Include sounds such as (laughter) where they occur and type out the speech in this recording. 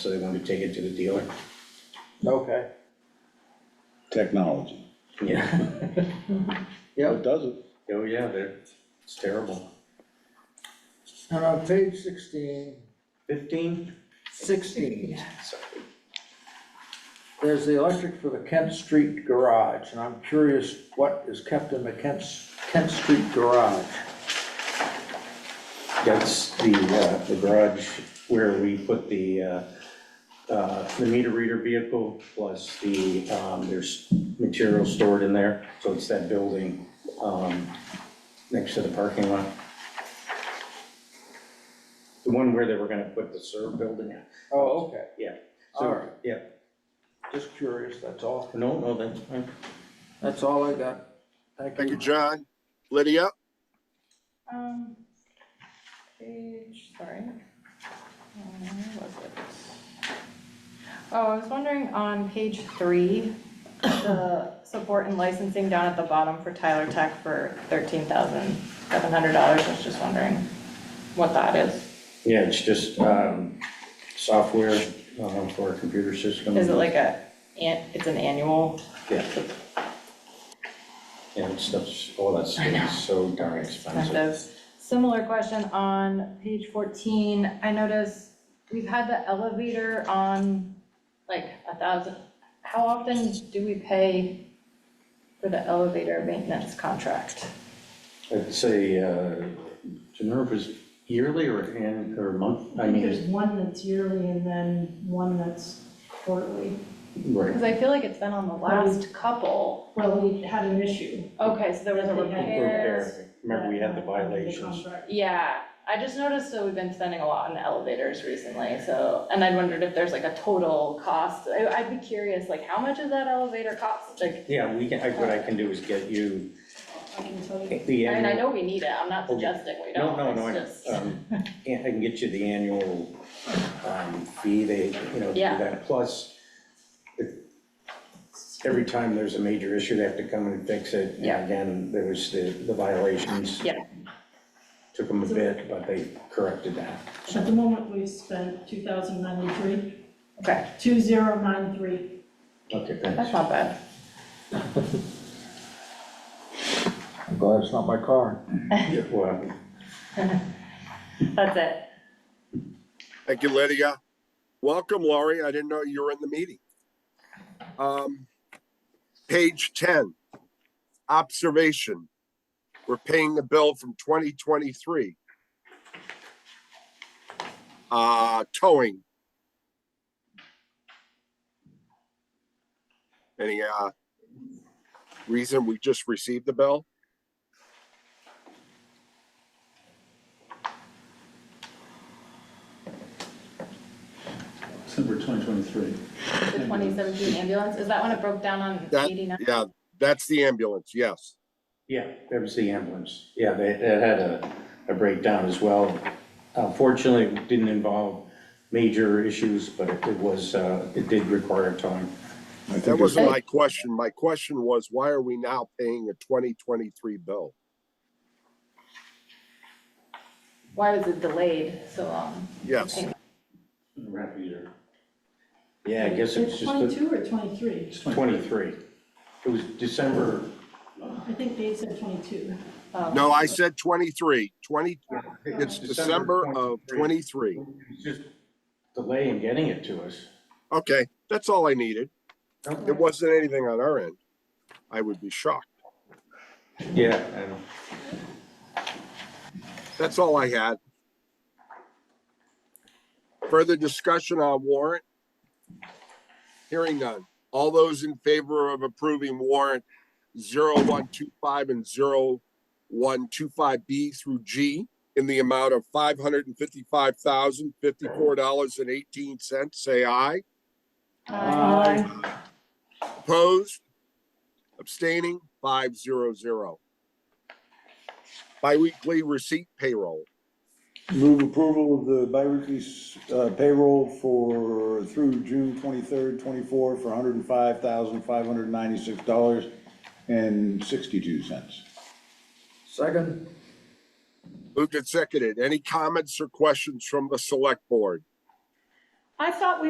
so they wanted to take it to the dealer. Okay, technology. Yeah. It doesn't, (laughs) Oh, yeah, they're, it's terrible. and on page sixteen, Fifteen? sixteen, Sorry. there's the electric for the Kent Street garage, and I'm curious what is kept in the Kent, Kent Street garage? That's the, uh, the garage where we put the, uh, uh, the meter reader vehicle plus the, um, there's material stored in there. So it's that building, um, next to the parking lot. The one where they were gonna put the serve building at. Oh, okay, Yeah. So- all right, Yeah. just curious, that's all, No, no, that's fine. that's all I got, thank Thank you, you. John. Lydia? Um, page, sorry. Um, Where was it? Oh, I was wondering on page three, the support and licensing down at the bottom for Tyler Tech for thirteen thousand seven hundred dollars. I was just wondering what that is. Yeah, it's just, um, software, um, for a computer system. Is it like a, an- it's an annual? Yeah. Yeah, it's, that's, all that stuff's so darn expensive. Expensive. Similar question on page fourteen, I noticed we've had the elevator on like a thousand. How often do we pay for the elevator maintenance contract? I'd say, uh, Geneva is yearly or an, or month, I I think there's mean, one that's yearly and then one that's quarterly. right. Because I feel like it's been on the last couple. Well, we had an issue. Okay, so there was a repair. Repair. Remember, we had the that, uh, under violations. contract. Yeah, I just noticed that we've been spending a lot on elevators recently, so, and I wondered if there's like a total cost. I- I'd be curious, like, how much is that elevator cost? Like, Yeah, we can, I- what I can do is get you I can tell you. the I mean, I annual. know we need it, I'm not Okay. suggesting we Oh, No, don't, no, no, it's I- just, um, yeah, I can get you the annual, um, fee, they, you know, do Yeah. that, plus, if- every time there's a major issue, they have to come and fix it, and Yeah. again, there was the, the violations. Yeah. Took them a bit, but they corrected that. At the moment, we've spent two thousand ninety-three, okay, two zero nine three. Okay, that's thanks. not bad. I'm glad it's not my car. Yeah, Well, um, That's it. Thank you, Lydia. Welcome, Laurie. I didn't know you were in the meeting. Um, Page 10, observation. We're paying the bill from 2023. Uh, Towing. Any uh, reason we just received the bill? December 2023. The twenty seventeen ambulance, is that when it broke down on That- eighty-nine? Yeah, that's the ambulance, yes. Yeah, there was the ambulance. Yeah, they, it had a, a breakdown as well. Unfortunately, it didn't involve major issues, but it it was, uh, it did require towing. I That think it's, wasn't my question. My question was, why are we now paying a twenty twenty-three bill? Why was it delayed so long? Yes, Rap year. Yeah, I guess it's just the- Twenty-two or twenty-three? It's 20. twenty-three. It was December, I think they said twenty-two. Um, no, I said twenty-three, twenty, it's December December of 23. twenty-three. it's just delay in getting it to us. Okay, that's all I needed. It wasn't anything on our end. I would be shocked. Yeah, I know. That's all I had. Further discussion on warrant? Hearing none. All those in favor of approving warrant 0125 and 0125B through G in the amount of $555,054.18, say aye. Aye. Opposed? Abstaining? 500. Biweekly receipt payroll. move approval of the bi-weekly s- uh, payroll for, through June twenty-third, twenty-four, for hundred and five thousand, five hundred and ninety-six dollars and sixty-two cents. Second, Moved and seconded. Any comments or questions from the select board? I thought we